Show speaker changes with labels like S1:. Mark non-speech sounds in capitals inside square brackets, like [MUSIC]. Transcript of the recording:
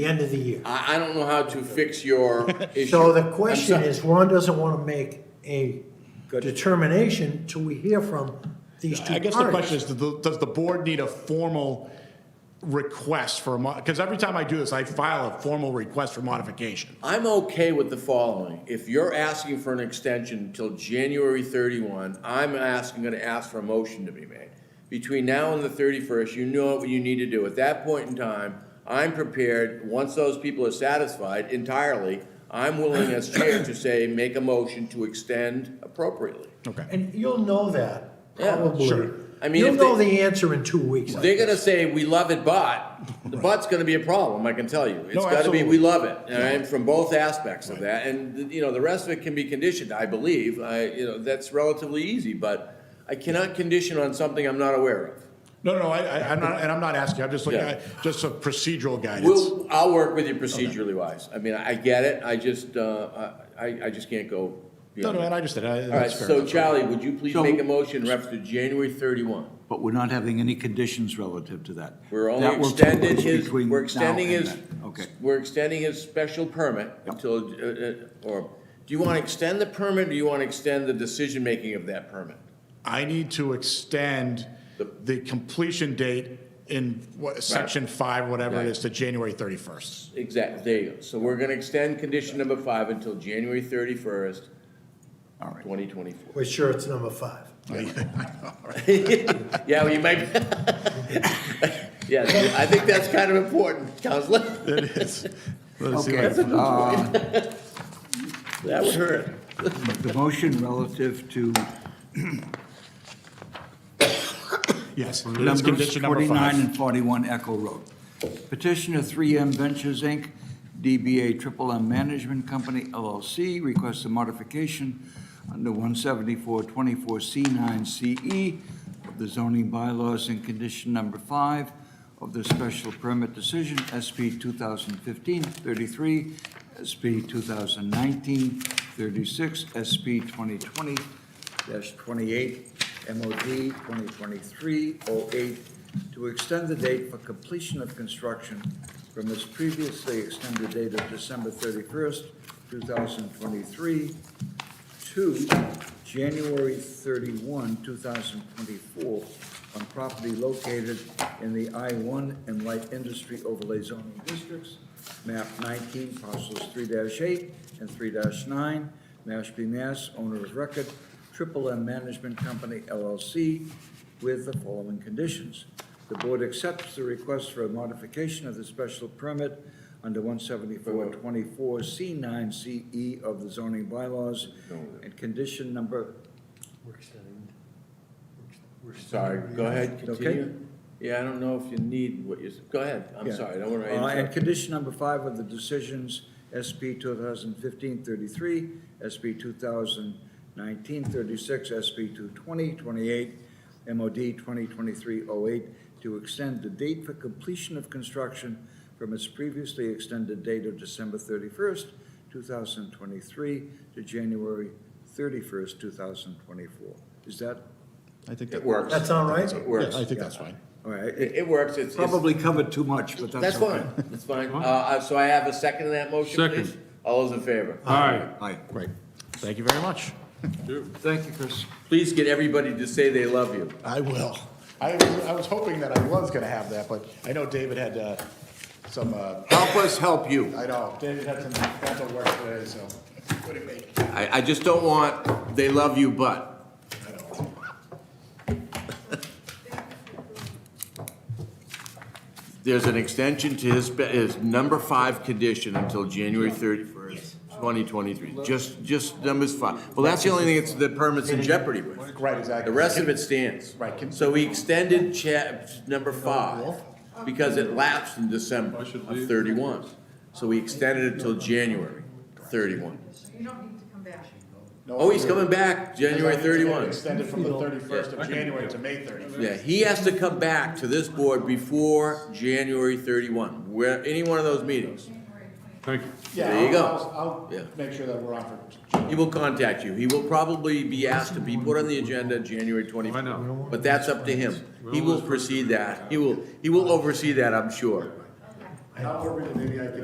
S1: the end of the year.
S2: I, I don't know how to fix your issue.
S1: [LAUGHS] So the
S2: I'm
S1: question
S2: so-
S1: is, Ron doesn't want to make a determination till we hear from these two
S3: I
S1: parties.
S3: guess the question is, does the- does the board need a formal request for a mo, because every time I do this, I file a formal request for modification.
S2: I'm okay with the following. If you're asking for an extension until January thirty-one, I'm asking, gonna ask for a motion to be made. Between now and the thirty-first, you know what you need to do. At that point in time, I'm prepared, once those people are satisfied entirely, I'm willing as chair to say, make a motion to extend appropriately.
S3: Okay.
S1: And you'll know that,
S2: Yeah,
S1: probably.
S3: sure.
S2: I mean,
S1: You'll
S2: if they-
S1: know the answer in two weeks.
S2: They're gonna say, we love it, but, the but's gonna be a problem, I can tell you. It's
S3: No,
S2: gotta be, we
S3: absolutely.
S2: love it, all right, from both aspects of that, and, you know, the rest of it can be conditioned, I believe. I, you know, that's relatively easy, but I cannot condition on something I'm not aware of.
S3: No, no, I, I, I'm not, and I'm not asking, I'm just looking
S2: Yeah.
S3: at, just a procedural guidance.
S2: We'll, I'll work with you procedurally wise. I mean, I get it, I just, uh, I, I just can't go
S3: No,
S2: beyond
S3: no,
S2: that.
S3: and I understand, I-
S2: All right,
S3: that's fair.
S2: so
S3: that's fair.
S2: Charlie, would you please
S4: So-
S2: make a motion in reference to January thirty-one?
S4: But we're not having any conditions relative to that.
S2: We're only
S4: That will take
S2: extending
S4: place
S2: his,
S4: between
S2: we're
S4: now
S2: extending
S4: and
S2: his,
S4: then. Okay.
S2: we're extending his special permit until, uh, uh, or, do you want to extend the permit, or do you want to extend the decision-making of that permit?
S3: I need to extend the completion date in what, section five, whatever it is, to January thirty-first.
S2: Exactly, there you go. So we're going to extend condition number five until January thirty-first,
S4: All right.
S2: twenty twenty-four.
S1: We're sure it's number five.
S2: Yeah, well, you might, [LAUGHS] yeah, I think that's kind of important, Counselor.
S3: [LAUGHS] It is. Let's see what I
S4: Okay,
S3: can-
S4: uh,
S2: That would hurt.
S4: the motion relative to
S3: Yes, it is
S4: numbers
S3: condition number five.
S4: 49 and 41 Echo Road. Petitioner 3M Ventures, Inc., DBA Triple M Management Company LLC, requests a modification under 174-24C9CE E of the zoning bylaws in condition number five of the special permit decision, SP 2015-33, SP 2019-36, SP 2020-28, MOD 2023-08, to extend the date for completion of construction from its previously extended date of December 31st, 2023, to January 31, 2024, on property located in the I-1 and Light Industry Overlay Zoning Districts, map 19, parcels 3-8 and 3-9, Mashpee, Mass., owner of record, Triple M Management Company LLC, with the following conditions. The board accepts the request for a modification of the special permit under 174-24C9CE E of the zoning bylaws and condition number,
S1: We're extending.
S2: Sorry, go ahead,
S4: Okay.
S2: continue. Yeah, I don't know if you need what you, go ahead, I'm
S4: Yeah.
S2: sorry, I don't want to
S4: Uh, and
S2: interrupt.
S4: condition number five of the decisions, SP 2015-33, SP 2019-36, SP 220-28, MOD 2023-08, to extend the date for completion of construction from its previously extended date of December 31st, 2023, to January 31st, 2024. Is that,
S3: I think
S2: It
S3: that,
S2: works.
S1: That sound right?
S2: It
S3: yeah,
S2: works.
S3: I think that's fine.
S4: all right, it
S2: It it works, it's. it's-
S4: probably covered too much, but
S2: That's
S4: that's okay.
S2: fine, that's fine. Uh, Uh, so I have a second to that motion,
S5: Second.
S2: please? All those in favor?
S5: Aye.
S4: Aye.
S3: Great. Thank you very much.
S4: Thank you, Chris.
S2: Please get everybody to say they love you.
S3: I will. I was, I was hoping that I was gonna have that, but I know David had, uh, some, uh,
S2: Help us help you.
S3: I know, David had some mental work today, so. what do you make?
S2: I, I just don't want, they love you, but.
S3: I know.
S2: There's an extension to his, be- his number five condition until January thirty-first, twenty twenty-three. Just, just numbers five. Well, that's the only thing that's, the permit's in jeopardy with.
S3: Right, exactly.
S2: The rest of it stands.
S3: Right, can-
S2: So we extended chap, number five, because it lapsed in December of thirty-one. So we extended it till January thirty-one.
S6: You don't need to come back.
S3: No,
S2: Oh, he's coming back, January thirty-one.
S3: Extended from the thirty-first of January to May thirty-first.
S2: Yeah, he has to come back to this board before January thirty-one, where, any one of those meetings.
S5: Thank you.
S2: There you go.
S3: I'll,
S2: Yeah.
S3: I'll make sure that we're on for,
S2: He will contact you. He will probably be asked to be put on the agenda January twenty-fourth.
S5: I know.
S2: But that's up to him. He will proceed that. He will, he will oversee that, I'm sure.
S3: However, maybe I can